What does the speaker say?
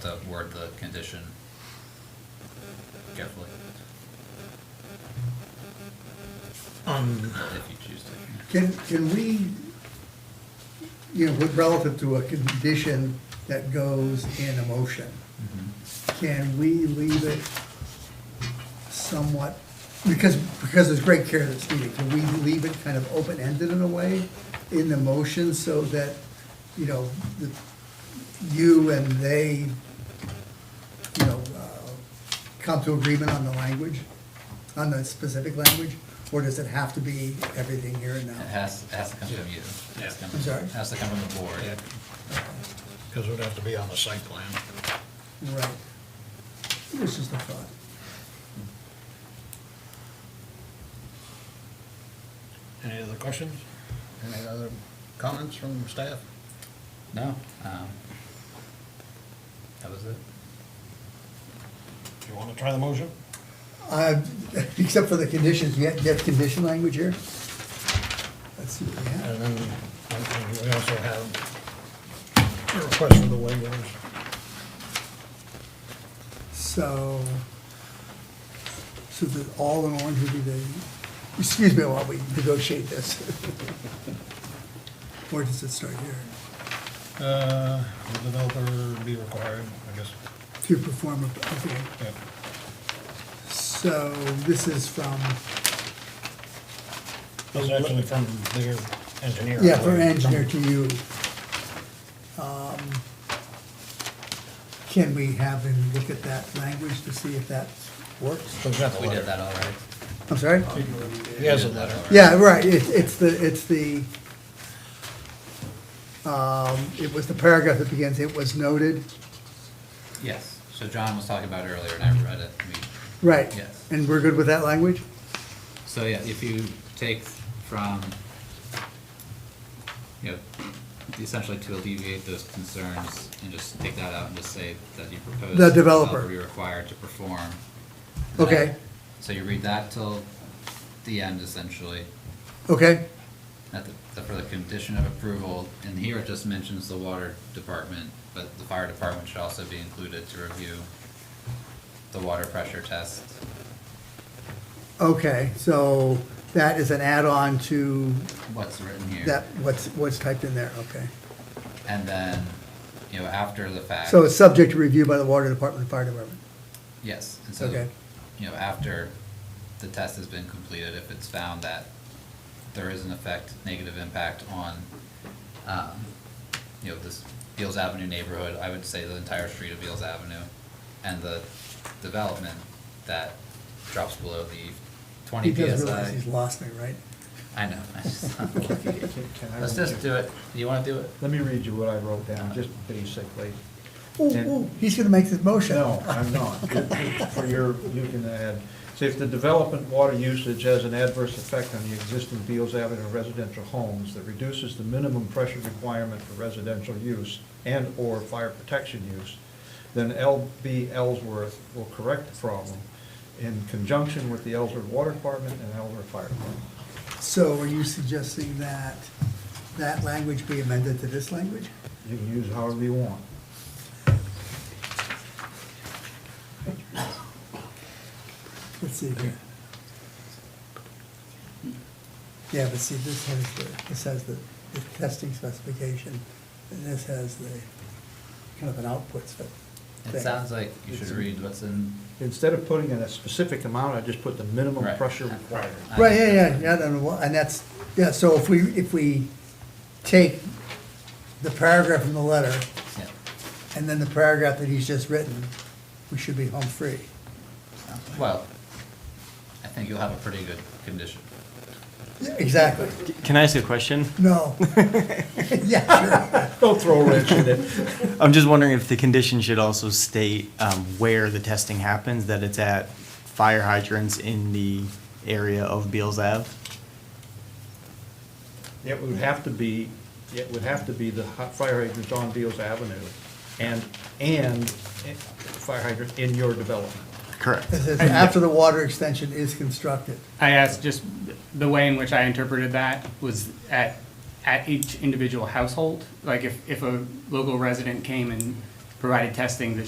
to word the condition carefully, Um, if you choose to. Can, can we, you know, with- relative to a condition that goes in a motion, can we leave it somewhat, because, because there's great care that's needed, can we leave it kind of open-ended in a way in the motion so that, you know, the- you and they, you know, uh, come to agreement on the language, on the specific language? Or does it have to be everything here and It now? has, it has to come from you. It has to come- I'm sorry? Has to come from the board. because it would have to be on the site plan. Right. It was just a thought. Any other questions? Any other comments from staff? No, um, that was it. Do you want to try the motion? Uh, Except for the conditions, you have, you have condition language here? Let's see what we have. And then and we also have a request for the waivers. So, so that all in orange would be the, excuse me while we negotiate this. Where does it start here? Uh, The developer be required, I guess. To perform, a- okay, yeah. so this is from, This is actually from their engineer. yeah, from engineer to you. Um, Can we have him look at that language to see if that works? So he's got the We did letter. that already. I'm sorry? He has a We did that letter. already. Yeah, right, it, it's the, it's the, um, it was the paragraph that begins, it was noted, Yes, so John was talking about it earlier and I read it. We- right? Yes. And we're good with that language? So yeah, if you take from, you know, essentially to alleviate those concerns and just take that out and just say that you propose. The developer. Be required to perform. Okay. So you read that till the end essentially. Okay, At the, the- for the condition of approval, and here it just mentions the water department, but the fire department should also be included to review the water pressure test. okay, so that is an add-on to What's written here? that, what's, what's typed in there, okay. And then, you know, after the fact. So it's subject to review by the water department and fire department, Yes, and so, Okay. you know, after the test has been completed, if it's found that there is an effect, negative impact on, um, you know, this Beals Avenue neighborhood, I would say the entire street of Beals Avenue, and the development that drops below the twenty He PSI. does realize he's lost me, right? I know, I just, Can I let's read just you- do it, you wanna do it? Let me read you what I wrote down, just basically. Ooh, ooh, he's gonna make this motion. No, I'm not. For your, you can add, see, if the development water usage has an adverse effect on the existing Beals Avenue residential homes that reduces the minimum pressure requirement for residential use and/or fire protection use, then LB Ellsworth will correct the problem in conjunction with the Ellsworth Water Department and Ellsworth Fire Department. So are you suggesting that that language be amended to this language? You can use however you want. Let's see here. Yeah, but see, this has the, this has the the testing specification, and this has the, kind of an output spec. It sounds like you should It's- read what's in. Instead of putting in a specific amount, I just put the minimum Right. pressure required. I Right, yeah, think yeah, that's- yeah, and wha- and that's, yeah, so if we, if we take the paragraph from the letter, Yeah, and then the paragraph that he's just written, we should be home free. well, I think you'll have a pretty good condition. Yeah, Exactly, Can I ask a question? no. Yeah, sure. Don't throw a wrench in it. I'm just wondering if the condition should also state um, where the testing happens, that it's at fire hydrants in the area of Beals Ave? It would have to be, it would have to be the hot fire hydrant on Beals Avenue and, and eh, fire hydrant in your development. Correct. It says, after the water extension is constructed. I asked just the way in which I interpreted that was at, at each individual household. Like if, if a local resident came and provided testing that